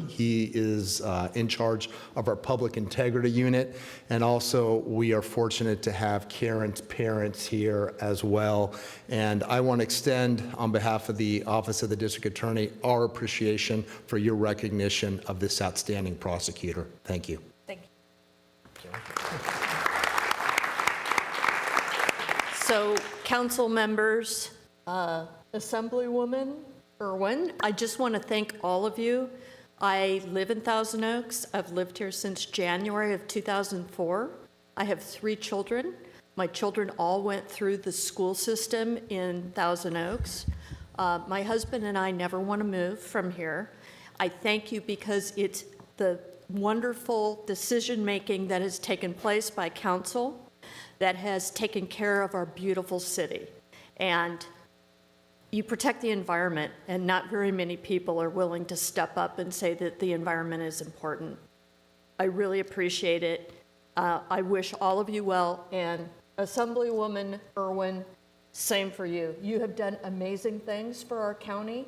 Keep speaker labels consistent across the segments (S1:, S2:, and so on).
S1: He is uh, in charge of our public integrity unit, and also, we are fortunate to have Karen's parents here as well. And I want to extend, on behalf of the Office of the District Attorney, our appreciation for your recognition of this outstanding prosecutor. Thank you.
S2: Thank you. So, council members, uh, Assemblywoman Irwin, I just want to thank all of you. I live in Thousand Oaks. I've lived here since January of 2004. I have three children. My children all went through the school system in Thousand Oaks. Uh, My husband and I never want to move from here. I thank you because it's the wonderful decision-making that has taken place by council that has taken care of our beautiful city. And you protect the environment, and not very many people are willing to step up and say that the environment is important. I really appreciate it. Uh, I wish all of you well, and Assemblywoman Irwin, same for you. You have done amazing things for our county,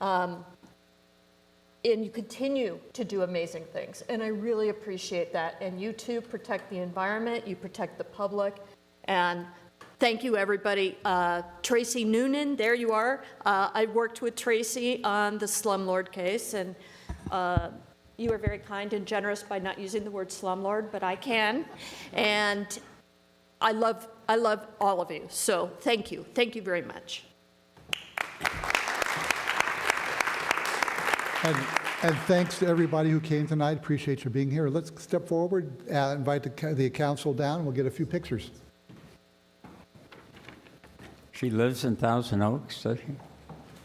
S2: um, and you continue to do amazing things, and I really appreciate that. And you too protect the environment, you protect the public, and thank you, everybody. Uh, Tracy Noonan, there you are. Uh, I worked with Tracy on the slumlord case, and uh, you were very kind and generous by not using the word slumlord, but I can. And I love, I love all of you. So thank you. Thank you very much.
S3: And, and thanks to everybody who came tonight. Appreciate you being here. Let's step forward, uh, invite the ca- the council down. We'll get a few pictures.
S4: She lives in Thousand Oaks, does she?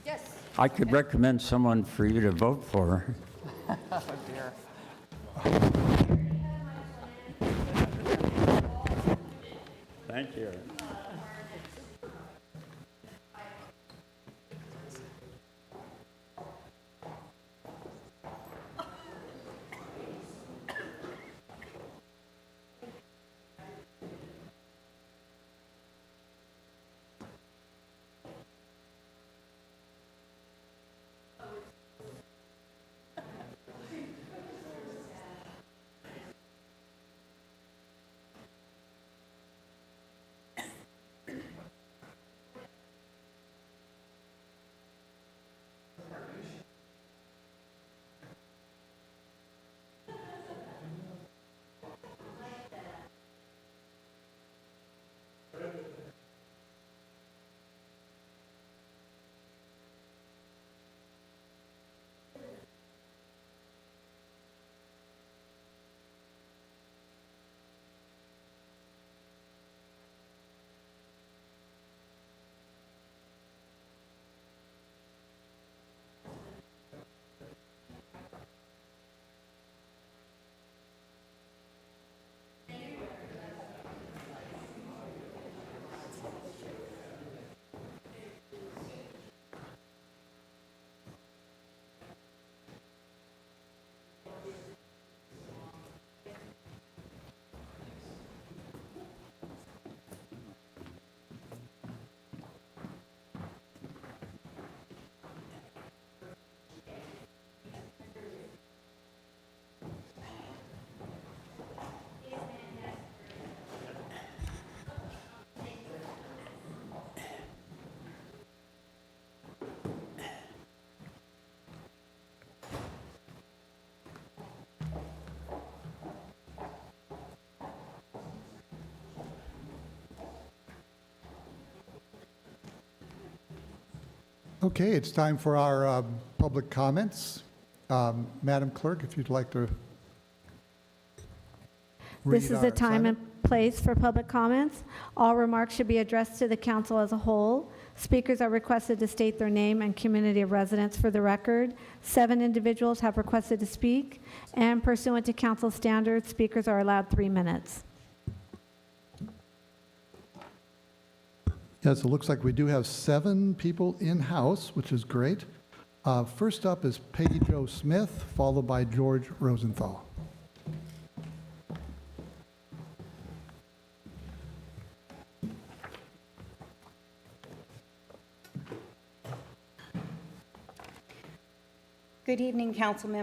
S2: Yes.
S4: I could recommend someone for you to vote for. her. Thank you.
S3: Okay, it's time for our um, public comments. Um, Madam Clerk, if you'd like to
S5: This
S3: read
S5: is the
S3: our
S5: time and
S3: assignment.
S5: place for public comments. All remarks should be addressed to the council as a whole. Speakers are requested to state their name and community of residence for the record. Seven individuals have requested to speak, and pursuant to council standards, speakers are allowed three minutes.
S3: Yes, it looks like we do have seven people in-house, which is great. Uh, First up is Peggy Jo Smith, followed by George Rosenthal.
S6: Good evening, council members.